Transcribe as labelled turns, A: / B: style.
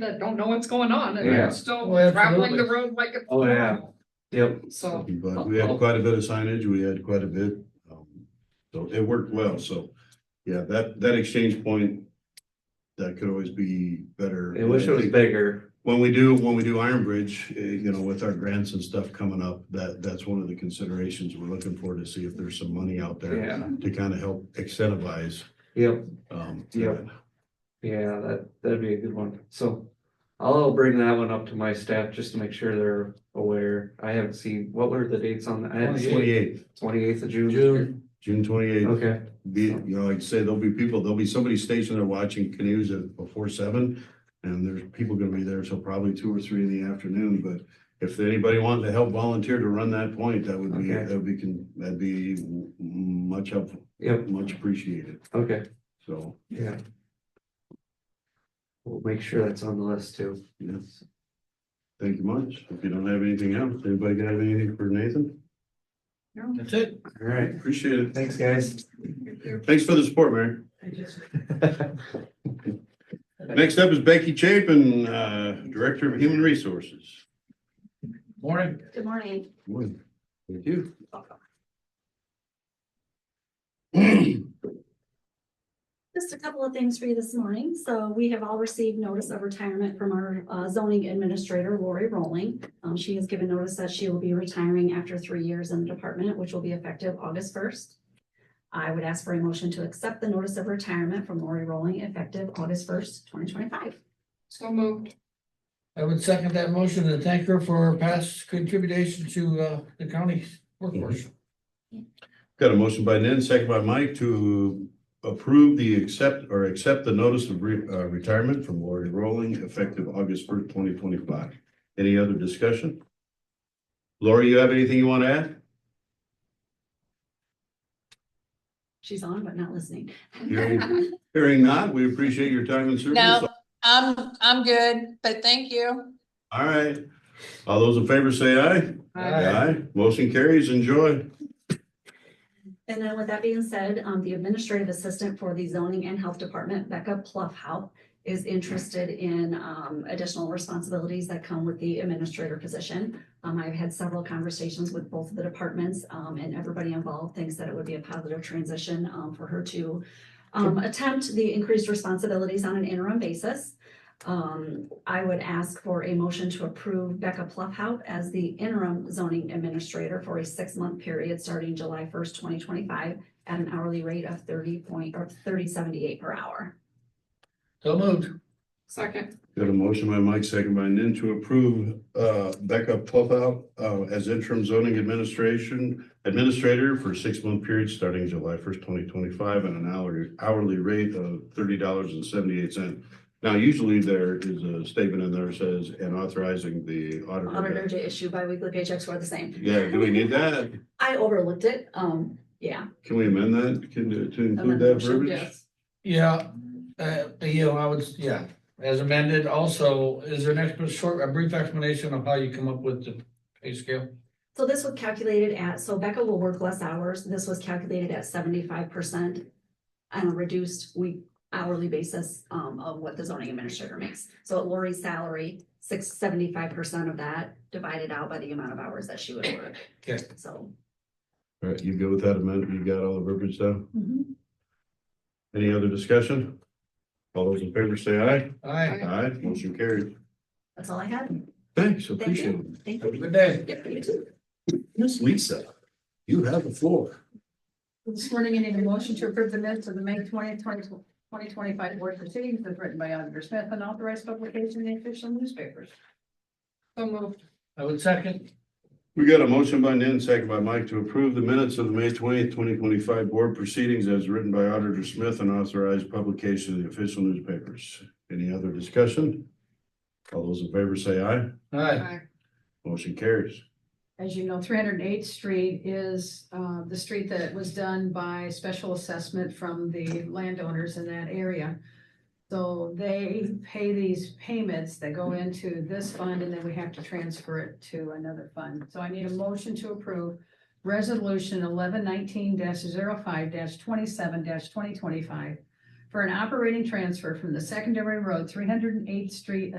A: that don't know what's going on and
B: Yeah.
A: they're still
B: Oh,
A: traveling the
B: absolutely.
A: road like it's
B: Oh, yeah.
A: normal.
B: Yep.
A: So,
C: But we had quite a bit of signage, we had quite a bit, um, so it worked well, so, yeah, that, that exchange point. That could always be better.
B: I wish it was bigger.
C: When we do, when we do Iron Bridge, eh, you know, with our grants and stuff coming up, that, that's one of the considerations we're looking for to see if there's some money out there.
B: Yeah.
C: To kind of help incentivize,
B: Yep.
C: um.
B: Yep. Yeah, that, that'd be a good one. So I'll bring that one up to my staff just to make sure they're aware. I haven't seen, what were the dates on? that? I haven't seen
C: Twenty-eighth,
B: twenty-eighth of June.
C: June. June twenty-eighth,
B: Okay,
C: be, you know, like I say, there'll be people, there'll be somebody stationed there watching canoes at before seven. And there's people gonna be there till probably two or three in the afternoon, but if anybody wanted to help volunteer to run that point, that would be,
B: Okay.
C: that would be, con- that'd be w- much helpful,
B: yep,
C: much appreciated,
B: okay,
C: so.
B: yeah. We'll make sure that's on the list too.
C: Yes. Thank you much. If you don't have anything else, anybody got anything for Nathan?
D: That's it.
B: All right,
C: Appreciate it.
B: thanks, guys.
C: Thanks for the support, Mary. Next up is Becky Chapin, uh, Director of Human Resources.
D: Morning.
E: Good morning.
C: Thank you.
E: Just a couple of things for you this morning. So we have all received notice of retirement from our uh, zoning administrator, Lori Rowling. Um, she has given notice that she will be retiring after three years in the department, which will be effective August first. I would ask for a motion to accept the notice of retirement from Lori Rowling effective August first, twenty twenty-five.
A: so moved.
D: I would second that motion and thank her for her past contribution to uh the county's workforce.
C: Got a motion by Nan, second by Mike to approve the accept, or accept the notice of re- uh, retirement from Lori Rowling effective August first, twenty twenty-five. Any other discussion? Lori, you have anything you want to add?
E: She's on but not listening.
C: Hearing- Hearing not, we appreciate your time and service.
F: No, I'm, I'm good, but thank you.
C: All right. All those in favor say aye.
D: Aye.
C: Motion carries. Enjoy.
E: And then with that being said, um, the administrative assistant for the zoning and health department, Becca Pluffhout, is interested in, um, additional responsibilities that come with the administrator position. Um, I've had several conversations with both of the departments, um, and everybody involved thinks that it would be a positive transition, um, for her to um, attempt the increased responsibilities on an interim basis. Um, I would ask for a motion to approve Becca Pluffhout as the interim zoning administrator for a six-month period starting July first, twenty twenty-five at an hourly rate of thirty point, or thirty seventy-eight per hour.
D: So moved.
A: Second,
C: Got a motion by Mike, second by Nan to approve uh, Becca Puffout uh, as interim zoning administration administrator for a six-month period starting July first, twenty twenty-five at an hourly, hourly rate of thirty dollars and seventy-eight cent. Now, usually there is a statement in there that says, and authorizing the
E: Auditor
C: auditor.
E: to issue biweekly paychecks were the same.
C: Yeah, do we need that?
E: I overlooked it, um, yeah.
C: Can we amend that? Can, to include
E: Amend
C: that
E: motion,
C: verbiage?
A: yes.
D: Yeah, uh, you know, I would, yeah, as amended. Also, is there an extra short, a brief explanation of how you come up with the pay scale?
E: So this was calculated at, so Becca will work less hours. This was calculated at seventy-five percent on a reduced week hourly basis um, of what the zoning administrator makes. So at Lori's salary, six, seventy-five percent of that divided out by the amount of hours that she would work.
D: Okay.
E: So.
C: All right, you go with that amendment? You got all the verbiage down?
E: mhm.
C: Any other discussion? All those in favor say aye.
D: Aye.
C: Aye, motion carried.
E: That's all I had.
C: Thanks,
E: Thank
C: appreciate it.
E: you. Thank
D: Have a
E: you.
D: good day.
E: Yep, you too.
C: Miss Lisa, you have the floor.
G: This morning, I need a motion to approve the minutes of the May twentieth, twenty, twenty twenty-five board proceedings as written by Auditor Smith and authorized publication in the official newspapers.
A: So moved.
D: I would second.
C: We got a motion by Nan, second by Mike to approve the minutes of the May twentieth, twenty twenty-five board proceedings as written by Auditor Smith and authorized publication in the official newspapers. Any other discussion? All those in favor say aye.
D: Aye.
A: Aye.
C: Motion carries.
G: As you know, three hundred and eighth street is, uh, the street that was done by special assessment from the landowners in that area. So they pay these payments that go into this fund and then we have to transfer it to another fund. So I need a motion to approve resolution eleven nineteen 5 twenty-seven twenty twenty-five for an operating transfer from the secondary road, three hundred and eighth street